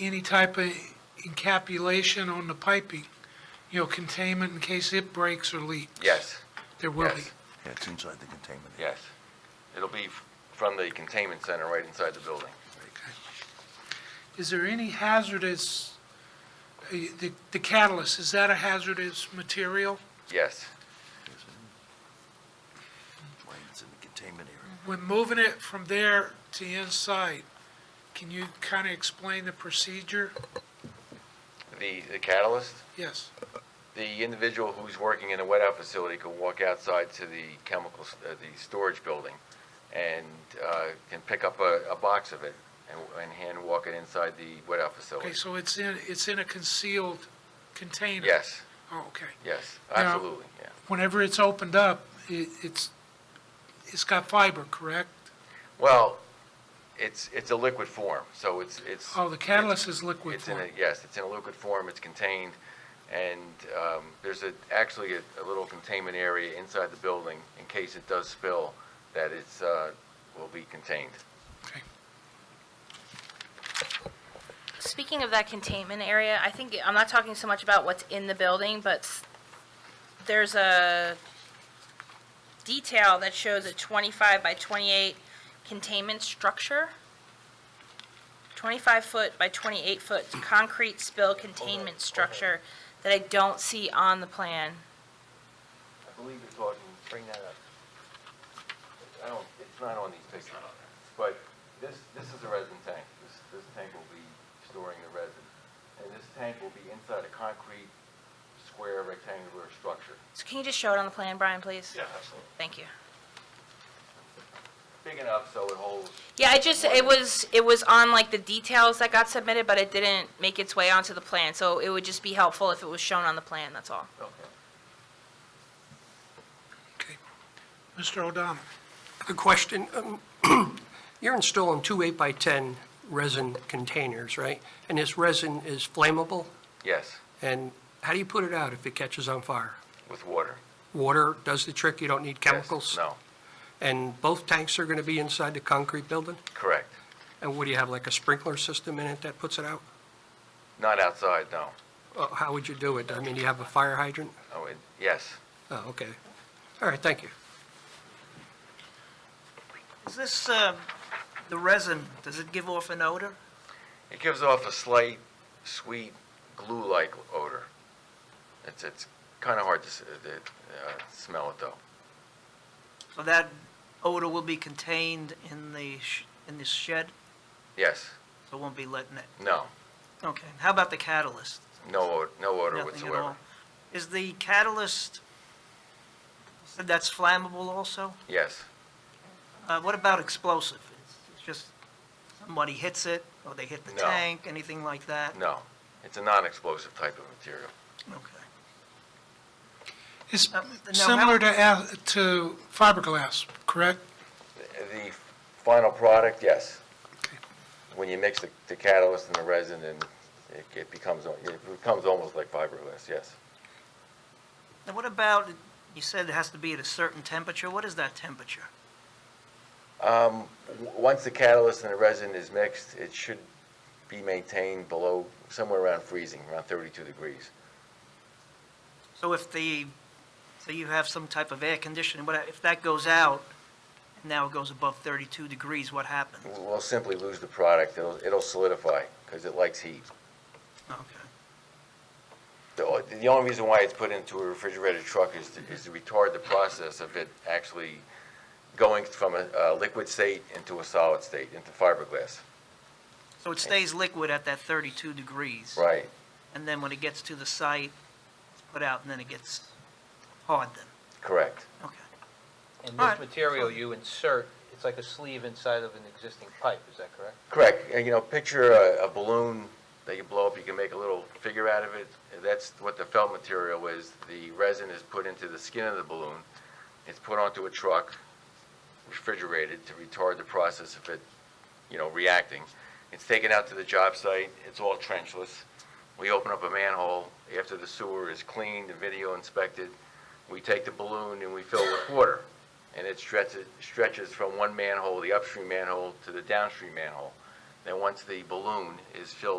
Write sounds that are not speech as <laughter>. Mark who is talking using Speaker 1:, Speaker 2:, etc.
Speaker 1: any type of encapsulation on the piping, you know, containment in case it breaks or leaks?
Speaker 2: Yes,
Speaker 1: There will be.
Speaker 2: Yes.
Speaker 3: Yeah, it's inside the containment. area.
Speaker 2: yes. It'll be f- from the containment center right inside the building.
Speaker 1: Is there any hazardous, uh, the the catalyst, is that a hazardous material?
Speaker 2: Yes,
Speaker 3: Yes, it is. That's why it's in the containment area.
Speaker 1: When moving it from there to inside, can you kind of explain the procedure?
Speaker 2: the the catalyst,
Speaker 1: Yes,
Speaker 2: the individual who's working in a wet out facility could walk outside to the chemicals, uh, the storage building, and uh, can pick up a a box of it and and hand walk it inside the wet out
Speaker 1: okay,
Speaker 2: facility.
Speaker 1: so it's in, it's in a concealed container?
Speaker 2: Yes,
Speaker 1: Oh, okay.
Speaker 2: yes,
Speaker 1: Now-
Speaker 2: absolutely, yeah.
Speaker 1: Whenever it's opened up, it- it's, it's got fiber, correct?
Speaker 2: Well, it's, it's a liquid form, so it's, it's.
Speaker 1: Oh, the catalyst is liquid
Speaker 2: It's in a,
Speaker 1: form.
Speaker 2: yes, it's in a liquid form, it's contained, and um, there's a, actually a a little containment area inside the building in case it does spill, that it's, uh, will be contained.
Speaker 1: Okay.
Speaker 4: Speaking of that containment area, I think, I'm not talking so much about what's in the building, but s- there's a detail that shows a 25 by 28 containment structure. 25-foot by 28-foot concrete spill containment structure that I don't see on the plan.
Speaker 2: I believe you're talking, bring that up. I don't, it's not on these pictures, but this, this is a resin tank. This, this tank will be storing the resin. And this tank will be inside a concrete square rectangular structure.
Speaker 4: So can you just show it on the plan, Brian, please?
Speaker 2: absolutely.
Speaker 4: Thank you.
Speaker 2: Big enough so it holds,
Speaker 4: Yeah, I just, it was, it was on like the details that got submitted, but it didn't make its way onto the plan, so it would just be helpful if it was shown on the plan, that's all.
Speaker 2: okay.
Speaker 1: Okay. Mr. O'Donnell?
Speaker 5: A question. um, <clears throat> You're installing two eight-by-10 resin containers, right? And this resin is flammable,
Speaker 2: Yes,
Speaker 5: and how do you put it out if it catches on fire?
Speaker 2: with water.
Speaker 5: Water does the trick, you don't need
Speaker 2: Yes.
Speaker 5: chemicals?
Speaker 2: No,
Speaker 5: And both tanks are going to be inside the concrete building?
Speaker 2: correct.
Speaker 5: And what, do you have like a sprinkler system in it that puts it out?
Speaker 2: Not outside, no.
Speaker 5: Uh, How would you do it? I mean, do you have a fire hydrant?
Speaker 2: Oh, it, yes.
Speaker 5: Oh, okay. All right, thank you.
Speaker 6: Is this, um, the resin, does it give off an odor?
Speaker 2: It gives off a slight, sweet, glue-like odor. It's, it's kind of hard to, s- uh, uh, smell it though.
Speaker 6: So that odor will be contained in the, sh- in the shed,
Speaker 2: Yes,
Speaker 6: so it won't be letting it?
Speaker 2: no,
Speaker 6: Okay, how about the catalyst?
Speaker 2: no, od- no odor
Speaker 6: Nothing at
Speaker 2: whatsoever.
Speaker 6: all. Is the catalyst, said that's flammable also?
Speaker 2: Yes,
Speaker 6: Uh, what about explosive? It's- It's just somebody hits it, or they hit the
Speaker 2: No.
Speaker 6: tank, anything like that?
Speaker 2: no. It's a non-explosive type of material.
Speaker 6: Okay.
Speaker 1: It's
Speaker 6: Uh, now
Speaker 1: similar
Speaker 6: how-
Speaker 1: to, a- to fiberglass, correct?
Speaker 2: The- The final product, yes.
Speaker 1: Okay.
Speaker 2: When you mix the, the catalyst and the resin, and it, it becomes, al- it becomes almost like fiberglass, yes.
Speaker 6: Now what about, you said it has to be at a certain temperature, what is that temperature?
Speaker 2: Um, w- once the catalyst and the resin is mixed, it should be maintained below, somewhere around freezing, around 32 degrees.
Speaker 6: So if the, so you have some type of air conditioning, what, if that goes out, and now it goes above 32 degrees, what happens?
Speaker 2: W- We'll simply lose the product, it'll, it'll solidify, because it likes heat.
Speaker 6: Okay.
Speaker 2: The, o- the only reason why it's put into a refrigerated truck is to, is to retard the process of it actually going from a, a liquid state into a solid state, into fiberglass.
Speaker 6: So it stays liquid at that 32 degrees?
Speaker 2: Right,
Speaker 6: And then when it gets to the site, it's put out, and then it gets hard then?
Speaker 2: correct.
Speaker 6: Okay.
Speaker 7: And
Speaker 6: Alright.
Speaker 7: this material you insert, it's like a sleeve inside of an existing pipe, is that correct?
Speaker 2: Correct, And, you know, picture a, a balloon that you blow up, you can make a little figure out of it. That's what the felt material is. The resin is put into the skin of the balloon. It's put onto a truck, refrigerated to retard the process of it, you know, reacting. It's taken out to the job site, it's all trenchless. We open up a manhole after the sewer is cleaned and video inspected. We take the balloon and we fill with water. And it stretches, stretches from one manhole, the upstream manhole, to the downstream manhole. Then once the balloon is filled